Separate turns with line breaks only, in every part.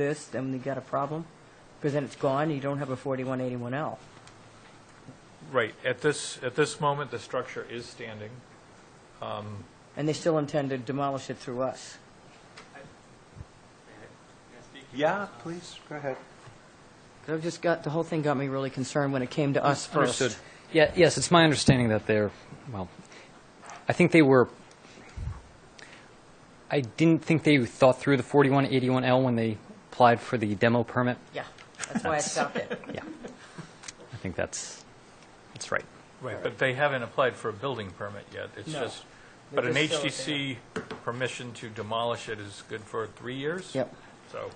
this, then you got a problem, because then it's gone, and you don't have a 4181L.
Right, at this, at this moment, the structure is standing.
And they still intend to demolish it through us.
Yeah, please, go ahead.
So I've just got, the whole thing got me really concerned when it came to us first.
Understood.
Yeah, yes, it's my understanding that they're, well, I think they were, I didn't think they thought through the 4181L when they applied for the demo permit.
Yeah, that's why I stopped it.
Yeah. I think that's, that's right.
Right, but they haven't applied for a building permit yet. It's
No.
just,
They're
but an
just still
HDC permission to demolish it is good for three years?
Yep.
So,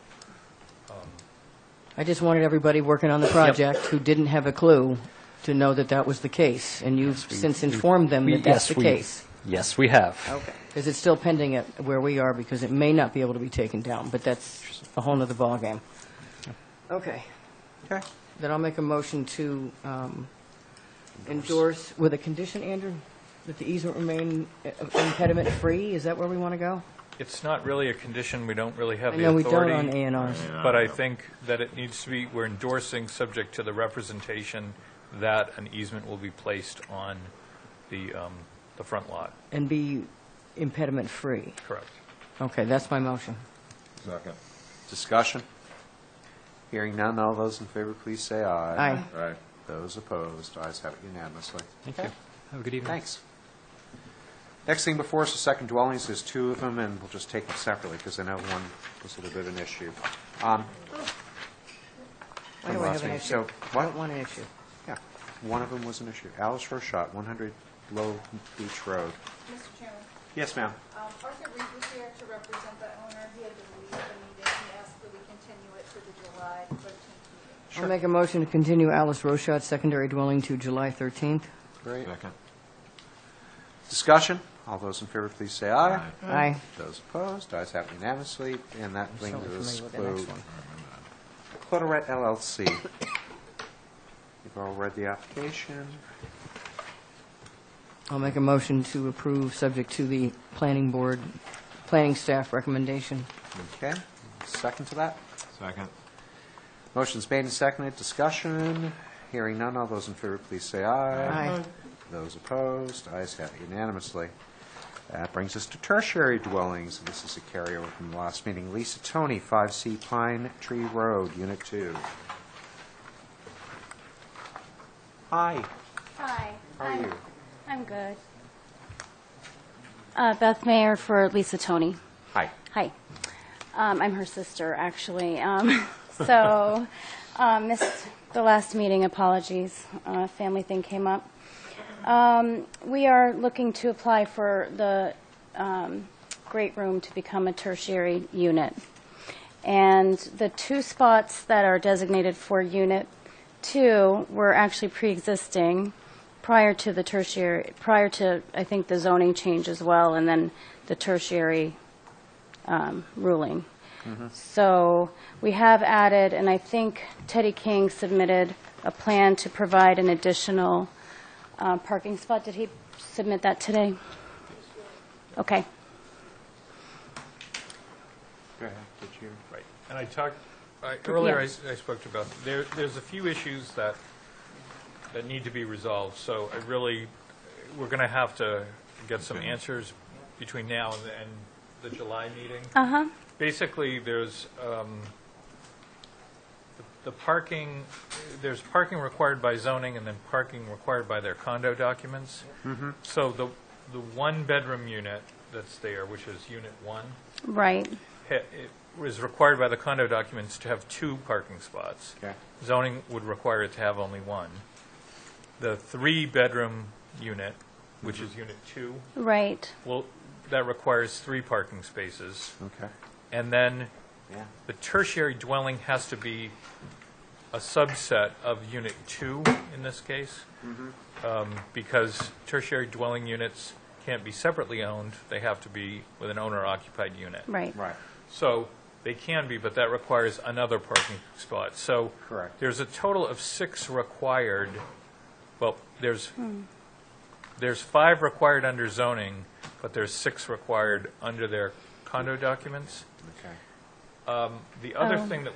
I just wanted everybody working on the project who didn't have a clue to know that that was the case, and you've since informed them
We-
that that's
yes,
the
we-
case.
Yes, we have.
Okay. Because it's still pending at where we are, because it may not be able to be taken down, but that's a whole nother ballgame. Okay.
Okay.
Then I'll make a motion to um, endorse, with a condition, Andrew, that the easement remain uh, impediment-free? Is that where we want to go?
it's not really a condition, we don't really have
I
the
know we don't
authority.
on A and Rs.
But I think that it needs to be, we're endorsing, subject to the representation that an easement will be placed on the, um, the front lot,
And be impediment-free.
correct?
Okay, that's my motion.
Second.
Discussion? Hearing none, all those in favor, please say aye.
Aye.
Aye.
Those opposed, ayes have it unanimously.
Thank you. Have a good evening.
Thanks. Next thing before us is second dwellings, there's two of them, and we'll just take them separately, because I know one was a little bit of an issue. Um,
Why do I have an
Rossman,
issue?
so
I
what-
don't want an issue.
Yeah, one of them was an issue. Alice Rochat, 100 Low Beach Road.
Mr. Chairman,
Yes, ma'am.
um, Arthur Reed was here to represent the owner. He had to leave the meeting. He asked that we continue it to the July 13th meeting.
I'll make a motion to continue Alice Rochat's secondary dwelling to July 13th.
Great.
Second.
Discussion? All those in favor, please say aye.
Aye.
Those opposed, ayes have unanimously, and that
So
brings us
familiar with the next
to
one.
Clutterette LLC. You've all read the application.
I'll make a motion to approve, subject to the planning board, planning staff recommendation.
Okay, second to that.
Second.
Motion's made and seconded, discussion. Hearing none, all those in favor, please say aye.
Aye.
Those opposed, ayes have it unanimously. That brings us to tertiary dwellings, and this is a carryover from the last meeting. Lisa Tony, 5C Pine Tree Road, Unit 2. Hi,
Hi.
how are
I'm-
you?
I'm good. Uh, Beth Mayer for Lisa Tony.
Hi.
Hi. Um, I'm her sister, actually. Um, So, uh, missed the last meeting, apologies. Uh, Family thing came up. Um, We are looking to apply for the um, great room to become a tertiary unit. And the two spots that are designated for Unit 2 were actually pre-existing prior to the tertiary, prior to, I think, the zoning change as well, and then the tertiary um, ruling. So we have added, and I think Teddy King submitted a plan to provide an additional uh, parking spot. Did he submit that today? Okay.
Go ahead, did you?
Right, and I talked, I- earlier I s- I spoke to Beth, there, there's a few issues that, that need to be resolved, so I really, we're going to have to get some answers between now and the- and the July meeting.
Uh-huh.
Basically, there's, um, the parking, there's parking required by zoning and then parking required by their condo documents. So the, the one-bedroom unit that's there, which is Unit 1,
Right.
ha- it was required by the condo documents to have two parking spots.
Okay.
Zoning would require it to have only one. The three-bedroom unit, which is unit two,
Right.
well, that requires three parking spaces.
Okay,
And then
yeah.
the tertiary dwelling has to be a subset of unit two in this case. Um, Because tertiary dwelling units can't be separately owned, they have to be with an owner-occupied unit.
Right.
Right,
So they can be, but that requires another parking spot. So
Correct.
there's a total of six required, well, there's, there's five required under zoning, but there's six required under their condo documents.
okay.
Um, The other thing that